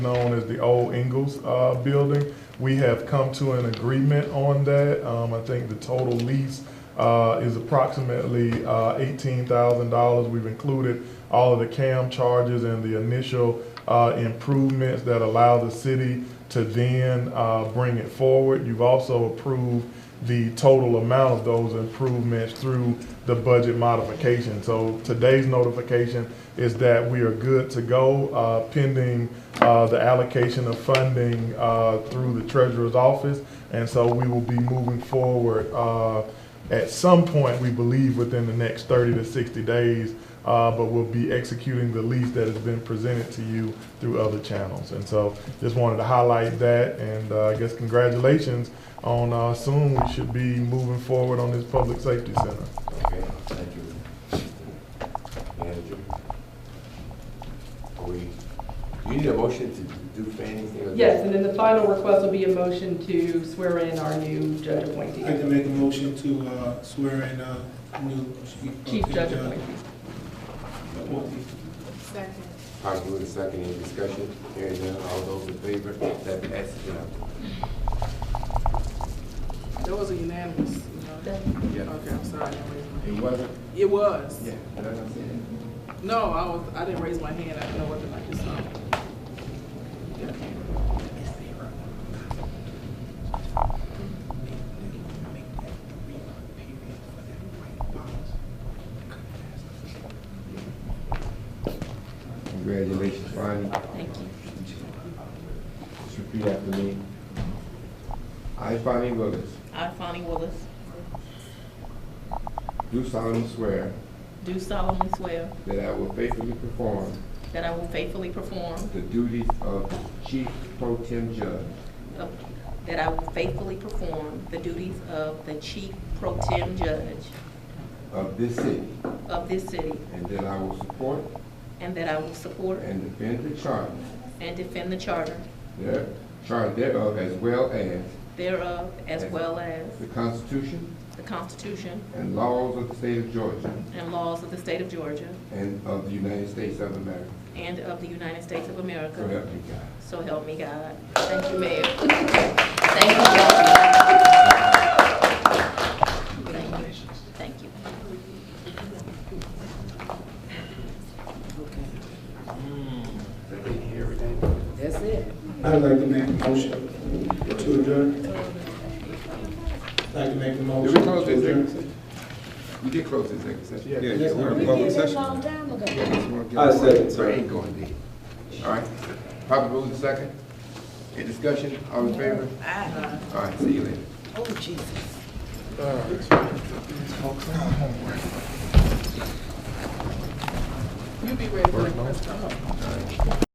known as the old Ingalls uh, building. We have come to an agreement on that. Um, I think the total lease uh, is approximately uh, $18,000. We've included all of the CAM charges and the initial uh, improvements that allow the city to then uh, bring it forward. You've also approved the total amount of those improvements through the budget modification. So today's notification is that we are good to go uh, pending uh, the allocation of funding uh, through the treasurer's office. And so we will be moving forward uh, at some point, we believe within the next 30 to 60 days, uh, but we'll be executing the lease that has been presented to you through other channels. And so just wanted to highlight that and uh, I guess congratulations on uh, soon we should be moving forward on this public safety center. Okay, thank you. Manager? Are we, you need a motion to do for anything? or- Yes, and then the final request will be a motion to swear in our new judge appointee, I'd like to make a motion to uh, swear in uh, new uh, chief. chief judge appointee. appointee. Second. Probably with a second, any discussion? Hearing none, all those in favor, that passes unanimously. That was a unanimous, you know? Yeah. Okay, I'm sorry, I didn't raise my hand. It wasn't? It was. Yeah. that's what I'm saying. No, I was, I didn't raise my hand, I didn't know what the night was on. Congratulations, Bonnie. Thank you. Just repeat after me. I, Bonnie Willis, I, Fonnie Willis, do solemnly swear do solemnly swear that I will faithfully perform that I will faithfully perform, the duties of Chief Pro Tem Judge of- uh, that I will faithfully perform the duties of the Chief Pro Tem Judge of this city, of this city, and that I will support and that I will support and defend the charter and defend the Charter there, charter thereof, as well as thereof, as well as the Constitution the Constitution and laws of the state of Georgia and laws of the State of Georgia and of the United States of America. and of the United States of So America. help me God. So help me God. Thank you, Mayor. Thank you, Mayor. Thank you. Thank you. I'd like to make a motion to adjourn. I'd like to make a Did we motion close to the adjourn. executive session? We did close the executive session. Yeah. Yeah, yeah, we're in public session. I second. So it ain't going deep. All right. Probably move the second. Any discussion? All in favor? All right, see you later. You be ready for the question.